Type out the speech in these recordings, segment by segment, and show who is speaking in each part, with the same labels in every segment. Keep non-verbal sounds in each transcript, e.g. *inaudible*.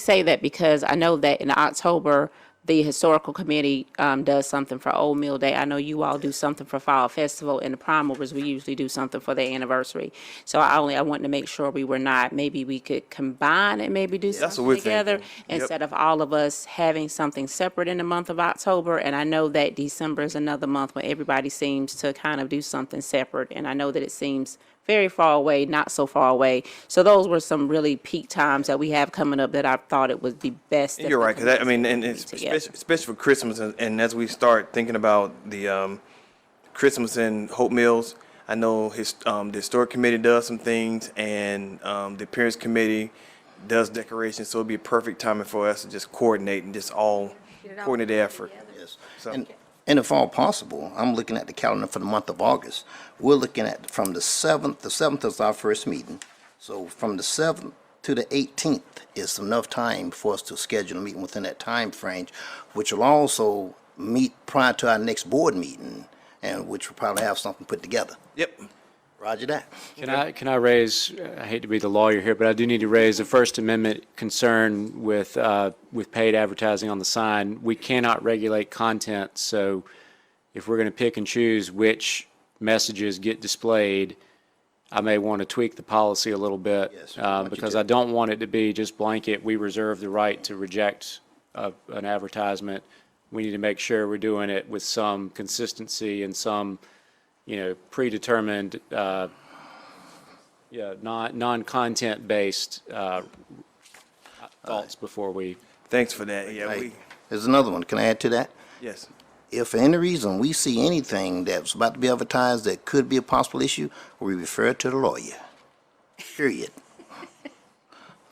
Speaker 1: say that because I know that in October, the historical committee um, does something for Old Mill Day. I know you all do something for Fall Festival, and the Prime Movers, we usually do something for their anniversary. So I only, I wanted to make sure we were not, maybe we could combine and maybe do
Speaker 2: That's what
Speaker 1: something
Speaker 2: we're
Speaker 1: together
Speaker 2: thinking. Yep.
Speaker 1: instead of all of us having something separate in the month of October. And I know that December is another month when everybody seems to kind of do something separate, and I know that it seems very far away, not so far away. So those were some really peak times that we have coming up that I thought it would be best. if
Speaker 2: You're
Speaker 1: the
Speaker 2: right, because I
Speaker 1: committees
Speaker 2: mean, and it's
Speaker 1: meet together.
Speaker 2: especially, especially for Christmas, and, and as we start thinking about the um, Christmas and Hope Mills, I know his um, the historic committee does some things, and um, the appearance committee does decorations. So it'd be a perfect timing for us to just coordinate and just all coordinate the effort.
Speaker 3: Yes.
Speaker 2: So-
Speaker 3: And, and if all possible, I'm looking at the calendar for the month of August. We're looking at from the seventh, the seventh is our first meeting. So from the seventh to the eighteenth is enough time for us to schedule a meeting within that time frame, which will also meet prior to our next board meeting, and which will probably have something put together.
Speaker 2: Yep.
Speaker 3: Roger that.
Speaker 4: Can I, can I raise, I hate to be the lawyer here, but I do need to raise the First Amendment concern with, uh, with paid advertising on the sign. We cannot regulate content, so if we're going to pick and choose which messages get displayed, I may want to tweak the policy a little bit.
Speaker 3: Yes, I
Speaker 4: uh,
Speaker 3: want you
Speaker 4: Because
Speaker 3: to.
Speaker 4: I don't want it to be just blanket, we reserve the right to reject a- an advertisement. We need to make sure we're doing it with some consistency and some, you know, predetermined, uh, yeah, non, non-content based, uh, thoughts before we,
Speaker 2: Thanks for that. Yeah.
Speaker 3: Hey,
Speaker 2: We,
Speaker 3: There's another one. Can I add to that?
Speaker 2: yes.
Speaker 3: If for any reason we see anything that's about to be advertised that could be a possible issue, we refer to the lawyer. Period.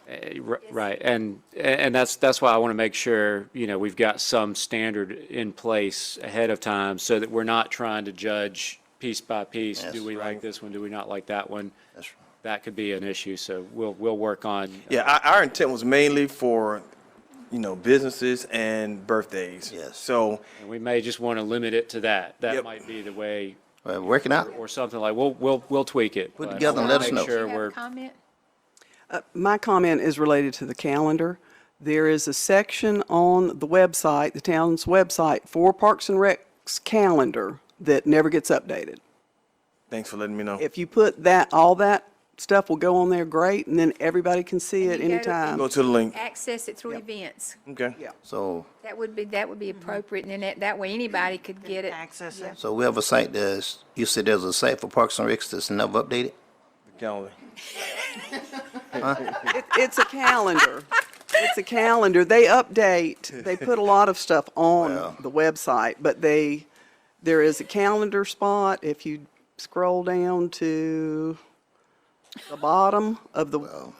Speaker 4: eh, ri- right, and, and that's, that's why I want to make sure, you know, we've got some standard in place ahead of time so that we're not trying to judge piece by piece,
Speaker 3: Yes.
Speaker 4: do we like this one, do we not like that one?
Speaker 3: That's right.
Speaker 4: That could be an issue, so we'll, we'll work on.
Speaker 2: Yeah. Our, our intent was mainly for, you know, businesses and birthdays.
Speaker 3: Yes.
Speaker 2: So
Speaker 4: And we may just want to limit it to that. That
Speaker 2: Yep.
Speaker 4: might be the way,
Speaker 3: Uh, Work it out.
Speaker 4: or something like, we'll, we'll, we'll tweak it.
Speaker 3: Put
Speaker 4: but I
Speaker 3: together and
Speaker 4: wanna
Speaker 3: let us
Speaker 4: make
Speaker 3: know.
Speaker 4: Sure, we're.
Speaker 5: Uh, My comment is related to the calendar. There is a section on the website, the town's website, for Parks and Rec's calendar that never gets updated.
Speaker 2: thanks for letting me know.
Speaker 5: If you put that, all that stuff will go on there, great, and then everybody can see it
Speaker 6: And you go to-
Speaker 5: anytime.
Speaker 2: Go to the
Speaker 3: Mm.
Speaker 2: link.
Speaker 6: access it through events.
Speaker 2: Okay.
Speaker 5: Yeah.
Speaker 3: So,
Speaker 6: That would be, that would be
Speaker 3: Mm-hmm.
Speaker 6: appropriate, and then that, that way anybody could get it.
Speaker 7: access it.
Speaker 3: so we have a site that's, you said there's a site for Parks and Recs that's never updated?
Speaker 2: Calendar.
Speaker 5: It- It's a calendar. It's a calendar. They update, they put a lot of stuff on the website, but they, there is a calendar spot. If you scroll down to the bottom of the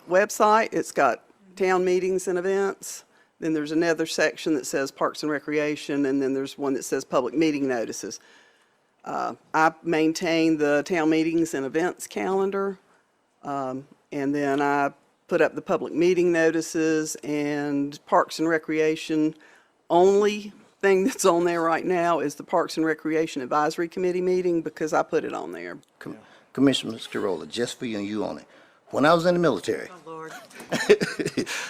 Speaker 5: website, it's got town meetings and events. Then there's another section that says Parks and Recreation, and then there's one that says Public Meeting Notices. Uh, I maintain the town meetings and events calendar. And then I put up the public meeting notices and Parks and Recreation. Only thing that's on there right now is the Parks and Recreation Advisory Committee meeting because I put it on there.
Speaker 3: Com- Commissioner Scarola, just for you and you only. When I was in the military,
Speaker 7: Lord,
Speaker 3: *laughs*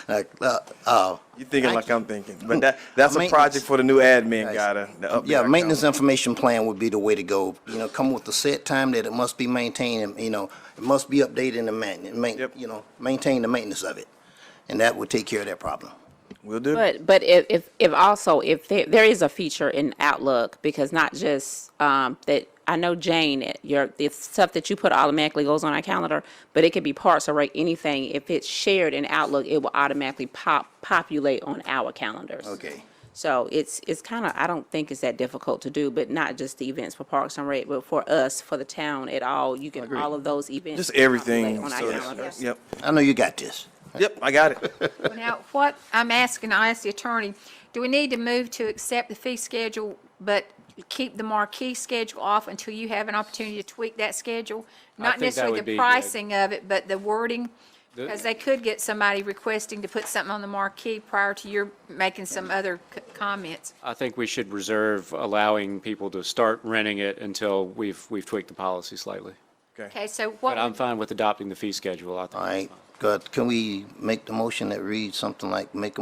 Speaker 3: like, uh, uh,
Speaker 2: You're thinking like I'm thinking, but that, that's a
Speaker 3: Maintenance.
Speaker 2: project for the new admin guy to. to update
Speaker 3: yeah,
Speaker 2: our
Speaker 3: maintenance
Speaker 2: calendar.
Speaker 3: information plan would be the way to go. You know, come with the set time that it must be maintained, and, you know, it must be updated and man, main,
Speaker 2: Yep.
Speaker 3: you know, maintain the maintenance of it. And that would take care of that problem.
Speaker 2: Will do.
Speaker 1: But, but if, if, if also, if there, there is a feature in Outlook, because not just, um, that, I know Jane, it- your, the stuff that you put automatically goes on our calendar, but it could be parts or right, anything. If it's shared in Outlook, it will automatically pop, populate on our calendars.
Speaker 3: Okay.
Speaker 1: So it's, it's kind of, I don't think it's that difficult to do, but not just the events for Parks and Rec, but for us, for the town at all, you can, all of those events.
Speaker 2: Just everything.
Speaker 1: populate On
Speaker 2: so
Speaker 1: our
Speaker 2: that's-
Speaker 1: calendars.
Speaker 2: Yep,
Speaker 3: I know you got this.
Speaker 2: yep, I got it.
Speaker 6: Now, what I'm asking, I asked the attorney, do we need to move to accept the fee schedule, but keep the marquee schedule off until you have an opportunity to tweak that schedule? Not
Speaker 4: think that
Speaker 6: necessarily
Speaker 4: would be
Speaker 6: the
Speaker 4: good.
Speaker 6: pricing of it, but the wording, because they could get somebody requesting to put something on the marquee prior to your making some other c- comments.
Speaker 4: I think we should reserve allowing people to start renting it until we've, we've tweaked the policy slightly.
Speaker 6: Okay, so what?
Speaker 4: But I'm fine with adopting the fee schedule. I
Speaker 3: All
Speaker 4: think
Speaker 3: right. God, can we make the motion that reads something like, make a